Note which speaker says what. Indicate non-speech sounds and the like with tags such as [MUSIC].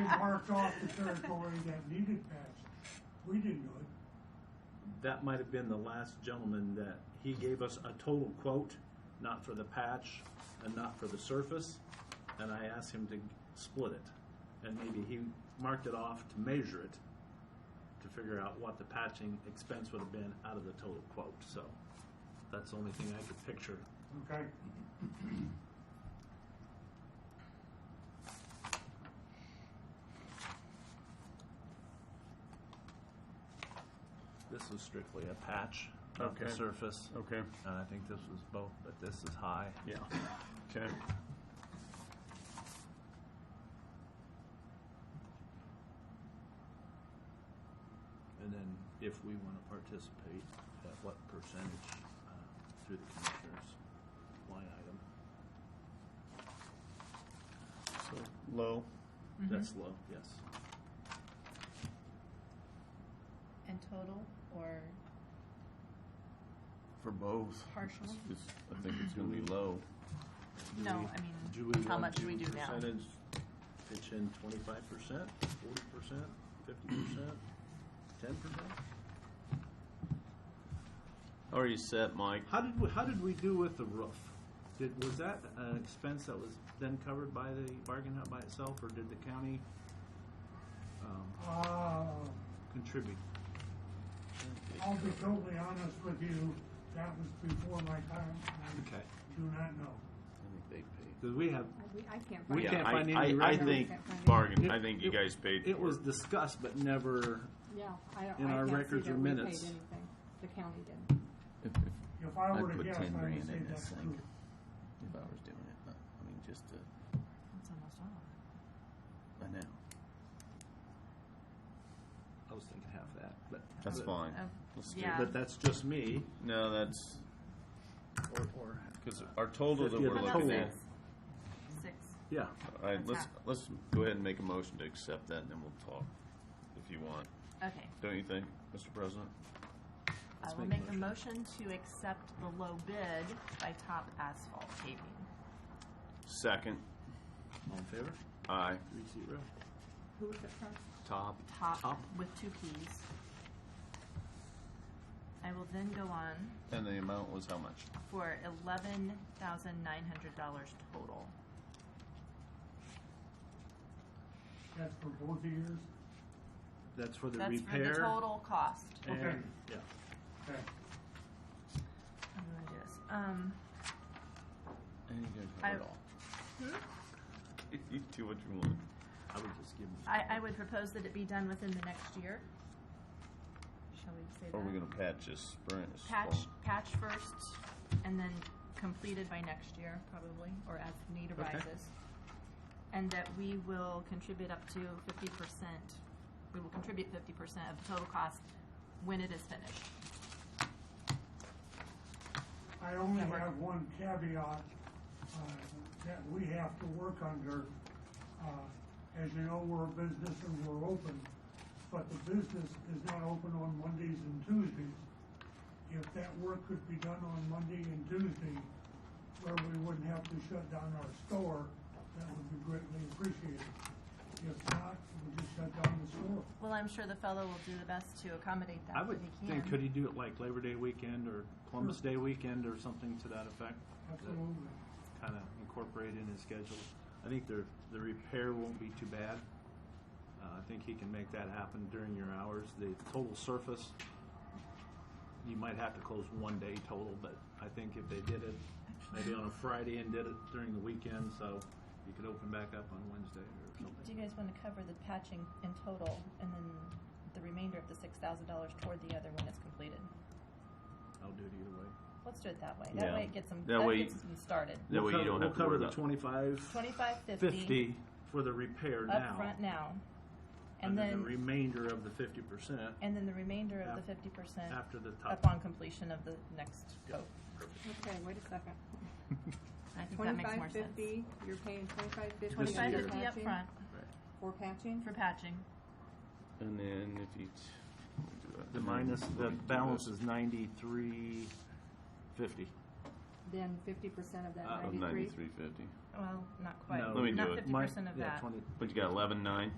Speaker 1: marked off the territory that needed passage. We didn't do it.
Speaker 2: That might have been the last gentleman that, he gave us a total quote, not for the patch and not for the surface, and I asked him to split it. And maybe he marked it off to measure it, to figure out what the patching expense would have been out of the total quote, so. That's the only thing I could picture.
Speaker 1: Okay.
Speaker 2: This was strictly a patch, not the
Speaker 3: Okay.
Speaker 2: surface.
Speaker 3: Okay,
Speaker 2: And I think this was both, but this is high.
Speaker 3: yeah, okay.
Speaker 2: And then if we want to participate, at what percentage uh, through the commissioners line item?
Speaker 3: So Low,
Speaker 4: Mm-hmm.
Speaker 2: That's low, yes.
Speaker 4: And total or
Speaker 5: For both.
Speaker 4: Partial?
Speaker 5: It's- it's- I think it's gonna be low.
Speaker 4: no? I mean, how much do we do now?
Speaker 2: Percentage, pitch in twenty-five percent, forty percent, fifty percent, ten percent?
Speaker 5: How are you set, Mike?
Speaker 2: How did, we- how did we do with the roof? Did, was that an expense that was then covered by the bargain hut by itself, or did the county um,
Speaker 1: Uh,
Speaker 2: contribute?
Speaker 1: I'll be totally honest with you, that was before my time. I
Speaker 2: Okay,
Speaker 1: Do not know.
Speaker 5: I think they paid.
Speaker 2: because we have,
Speaker 6: I can't
Speaker 2: We
Speaker 6: find
Speaker 2: can't
Speaker 5: I-
Speaker 2: find any
Speaker 5: I- I
Speaker 2: record.
Speaker 5: think
Speaker 6: Can't find any.
Speaker 5: bargain,
Speaker 2: It-
Speaker 5: I think you
Speaker 2: it-
Speaker 5: guys paid
Speaker 2: it
Speaker 5: for
Speaker 2: was
Speaker 5: it.
Speaker 2: discussed, but never
Speaker 6: Yeah, I don't,
Speaker 2: In
Speaker 6: I
Speaker 2: our
Speaker 6: can't see
Speaker 2: records or
Speaker 6: that we paid
Speaker 2: minutes.
Speaker 6: anything. The county did.
Speaker 5: If, if,
Speaker 1: If I
Speaker 5: I'd
Speaker 1: were to
Speaker 5: put
Speaker 1: guess,
Speaker 5: 10
Speaker 1: I would
Speaker 5: grand
Speaker 1: say
Speaker 5: in this
Speaker 1: that's
Speaker 5: thing.
Speaker 1: true.
Speaker 5: if I was doing it, but, I mean, just to,
Speaker 4: It's almost all.
Speaker 5: I know.
Speaker 2: I was thinking half that, but
Speaker 5: That's
Speaker 2: but-
Speaker 5: fine.
Speaker 4: Oh,
Speaker 5: Let's do it.
Speaker 4: yeah.
Speaker 2: But that's just me.
Speaker 5: No, that's,
Speaker 2: Or, or
Speaker 5: cause our total that
Speaker 2: Yeah,
Speaker 5: we're
Speaker 2: the
Speaker 5: looking
Speaker 2: total.
Speaker 5: at.
Speaker 4: Six.
Speaker 2: yeah.
Speaker 5: Alright,
Speaker 4: That's
Speaker 5: let's,
Speaker 4: half.
Speaker 5: let's go ahead and make a motion to accept that and then we'll talk, if you want.
Speaker 4: Okay.
Speaker 5: Don't you think, Mr. President?
Speaker 4: I will make
Speaker 2: make
Speaker 4: a motion to accept the low bid by Top Asphalt Paving.
Speaker 5: Second,
Speaker 2: All in favor?
Speaker 5: aye.
Speaker 2: Three zero.
Speaker 6: Who was it from?
Speaker 5: Top.
Speaker 4: Top
Speaker 2: Top.
Speaker 4: with two Ps. I will then go on
Speaker 5: And the amount was how much?
Speaker 4: for eleven thousand nine hundred dollars total.
Speaker 1: That's for both years.
Speaker 2: That's for the
Speaker 4: That's for
Speaker 2: repair.
Speaker 4: the total cost.
Speaker 2: and-
Speaker 1: Okay.
Speaker 2: Yeah.
Speaker 1: Okay.
Speaker 4: I'm gonna do this. Um,
Speaker 5: And you guys
Speaker 4: I-
Speaker 5: have it all.
Speaker 6: Hmm?
Speaker 5: [LAUGHS] You do what you want.
Speaker 2: I would just give them.
Speaker 4: I, I would propose that it be done within the next year. Shall we say that?
Speaker 5: Or we're gonna patch this spring. this
Speaker 4: Patch,
Speaker 5: fall.
Speaker 4: patch first, and then completed by next year, probably, or as need
Speaker 2: Okay.
Speaker 4: arises. And that we will contribute up to fifty percent, we will contribute fifty percent of the total cost when it is finished.
Speaker 1: I only
Speaker 4: Yeah, we're-
Speaker 1: have one caveat uh, that we have to work under. Uh, As you know, we're a business and we're open, but the business is not open on Mondays and Tuesdays. If that work could be done on Monday and Tuesday, where we wouldn't have to shut down our store, that would be greatly appreciated. If not, we'll just shut down the store.
Speaker 4: Well, I'm sure the fellow will do the best to accommodate
Speaker 2: I
Speaker 4: that
Speaker 2: would
Speaker 4: if he can.
Speaker 2: think, could he do it like Labor Day weekend or Columbus Day weekend or something to that effect?
Speaker 1: Absolutely.
Speaker 2: Kind of incorporate in his schedule. I think the, the repair won't be too bad. Uh, I think he can make that happen during your hours. The total surface, you might have to close one day total, but I think if they did it maybe on a Friday and did it during the weekend, so you could open back up on Wednesday or
Speaker 4: Do
Speaker 2: something.
Speaker 4: you guys want to cover the patching in total, and then the remainder of the six thousand dollars toward the other when it's completed?
Speaker 2: I'll do it either way.
Speaker 4: Let's do it that way.
Speaker 5: Yeah.
Speaker 4: That way it gets them,
Speaker 5: That
Speaker 4: that
Speaker 5: way-
Speaker 4: gets them started.
Speaker 5: That way you don't have to
Speaker 2: We'll cover
Speaker 5: worry about.
Speaker 2: the twenty-five,
Speaker 4: Twenty-five fifty
Speaker 2: fifty for the repair now.
Speaker 4: upfront now.
Speaker 2: And then the
Speaker 4: then,
Speaker 2: remainder of the fifty percent
Speaker 4: and then the remainder of the
Speaker 2: Af-
Speaker 4: fifty percent
Speaker 2: after the top.
Speaker 4: upon completion of the next coat.
Speaker 6: Okay, wait a second.
Speaker 4: I think that makes more
Speaker 6: Twenty-five
Speaker 4: sense.
Speaker 6: fifty, you're paying twenty-five fifty.
Speaker 4: Twenty-five
Speaker 2: year.
Speaker 4: fifty upfront
Speaker 6: For patching?
Speaker 4: for patching.
Speaker 5: [LAUGHS] And then if you. t- let me do that.
Speaker 2: The
Speaker 5: And then
Speaker 2: minus, the
Speaker 5: let me do
Speaker 2: balance
Speaker 5: this.
Speaker 2: is ninety-three fifty.
Speaker 6: Then fifty percent of
Speaker 2: Uh,
Speaker 6: that
Speaker 5: Of
Speaker 6: ninety-three?
Speaker 5: ninety-three fifty.
Speaker 4: Well, not quite.
Speaker 2: No,
Speaker 5: Let me do
Speaker 4: Not
Speaker 5: it.
Speaker 4: fifty percent of that.
Speaker 2: Yeah, twenty,
Speaker 5: But you got eleven nine?